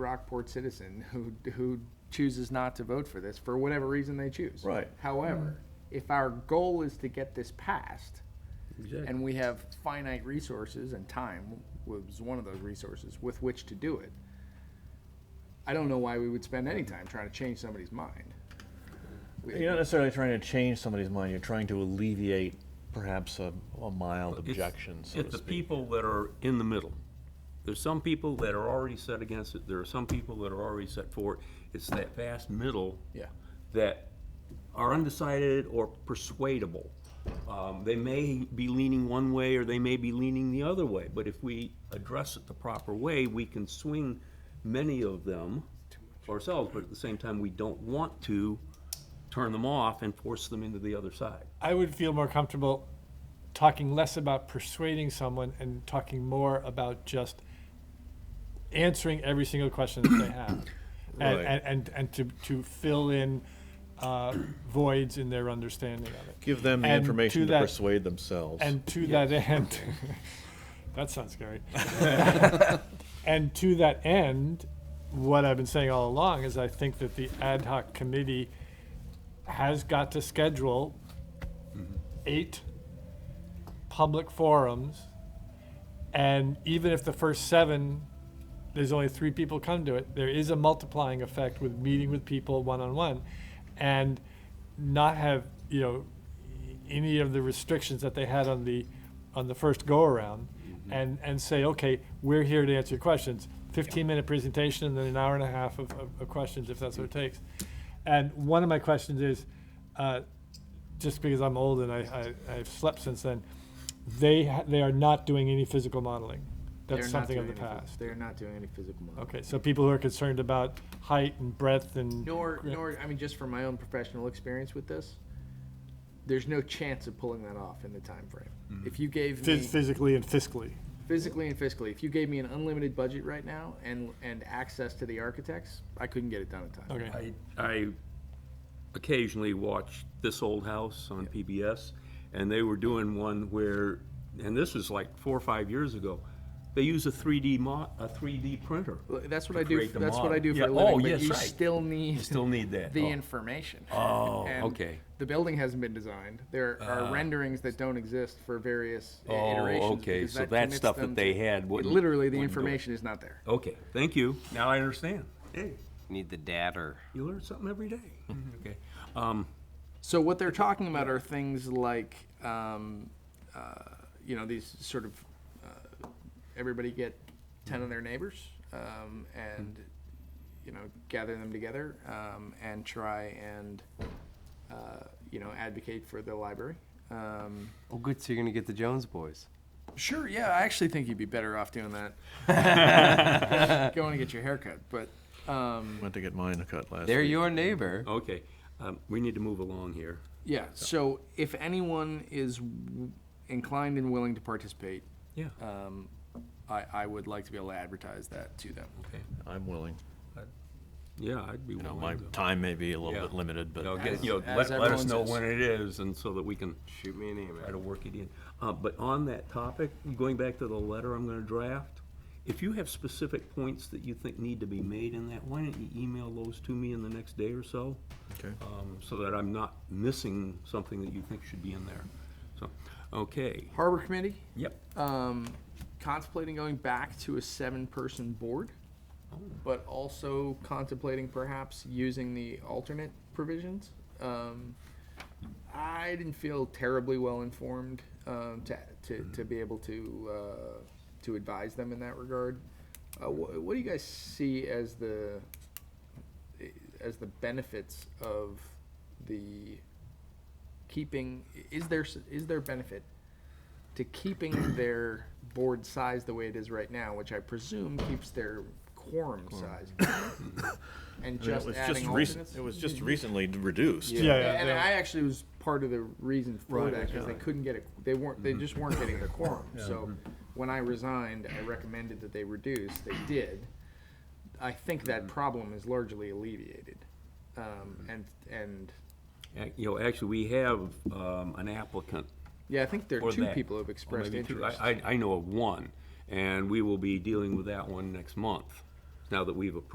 Rockport citizen who, who chooses not to vote for this, for whatever reason they choose. Right. However, if our goal is to get this passed, and we have finite resources and time was one of those resources with which to do it, I don't know why we would spend any time trying to change somebody's mind. You're not necessarily trying to change somebody's mind, you're trying to alleviate perhaps a, a mild It's- objection, so to It's the speak. people that are in the middle. There's some people that are already set against it, there are some people that are already set for it. It's that vast middle. Yeah. That are undecided or persuadable. Um, They may be leaning one way or they may be leaning the other way, but if we address it the proper way, we can swing many of them ourselves, but at the same time, we don't want to turn them off and force them into the other side. I would feel more comfortable talking less about persuading someone and talking more about just answering every single question that they have. And, Right. and, and, and to, to fill in uh, voids in their understanding of it. Give them the And information to to that- persuade themselves. And to that end, that sounds scary. and to that end, what I've been saying all along is I think that the ad hoc committee has got to schedule eight public forums, and even if the first seven there's only three people come to it. There is a multiplying effect with meeting with people one on one, and not have you know any of the restrictions that they had on the on the first go around, and and say okay, we're here to answer your questions. Fifteen minute presentation and then an hour and a half of, of, of questions if that's what it takes. And one of my questions is, uh, just because I'm old and I, I I've slept since then, they ha- they are not doing any physical modeling. They're That's not something of the doing any phys- past. They're not doing any physical modeling. Okay, so people who are concerned about height and breadth and. Nor, Yeah. nor, I mean, just from my own professional experience with this, there's no chance of pulling that off in the time frame. If you gave me. Phys- Physically and fiscally. physically and fiscally, if you gave me an unlimited budget right now and and access to the architects, I couldn't get it done in time. Okay. I, I occasionally watch This Old House on PBS, and they were doing one where, and this was like four or five years ago, they use a 3D mo, a 3D printer. Well, That's what To I do. create the That's what I do for model. a Yeah, living. oh, but yes, you right. still need You still need that. the Oh. information. Oh, And okay. Ah. The building hasn't been designed. There are renderings that don't exist for various uh, Oh, iterations. okay, because so that commits stuff that them they to- had wouldn't- Literally, the wouldn't do it. information is not there. Okay, thank you. Now I understand. Hey, Need the datter. you learn something every day. Okay. Um, So what they're talking about are things like, um, uh, you know, these sort of uh, everybody get ten of their neighbors um, and you know gather them together um, and try and uh, you know advocate for the library. Um, Oh, good. So you're gonna get the Jones boys. sure, yeah, I actually think you'd be better off doing that. Going to get your haircut, but um, Went to get mine cut last They're week. your neighbor. okay, um, we need to move along here. yeah. So if anyone is w- inclined and willing to participate, Yeah, um, I, I would like to be able to advertise that to them. okay. I'm willing. Yeah, I'd be You know, willing my to. time may be a Yeah. little bit limited, You know, but get- you know, As- let, as let us everyone know says. when it is, and so that we can Shoot me an email. try to work it in. Uh, but on that topic, going back to the letter I'm gonna draft, if you have specific points that you think need to be made in that, why don't you email those to me in the next day or so? Okay. Um, so that I'm not missing something that you think should be in there. So, okay, Harbor Committee, yep, um, contemplating going back to a seven-person board, but also contemplating perhaps using the alternate provisions. Um, I didn't feel terribly well informed, um, to, to, to be able to, uh, to advise them in that regard. Uh, wh- what do you guys see as the, as the benefits of the keeping, is there, s- is there benefit to keeping their board size the way it is right now, which I presume keeps their quorum size? And I mean, just it was adding just recent, alternates? it was just recently reduced. Yeah, yeah, And yeah. I actually was part of the reason for Right, that, because they couldn't get it, they weren't, Mm-hmm. they just weren't getting the quorum. So when I resigned, I recommended that they reduce, they did. I think Mm-hmm. that problem is largely alleviated. Um, and, and, Ac- you know, actually, we have, um, an applicant yeah, I think there are Or two that. people who have Or expressed maybe two. I- interest. I, I know of one, and we will be dealing with that one next month, now that we've approved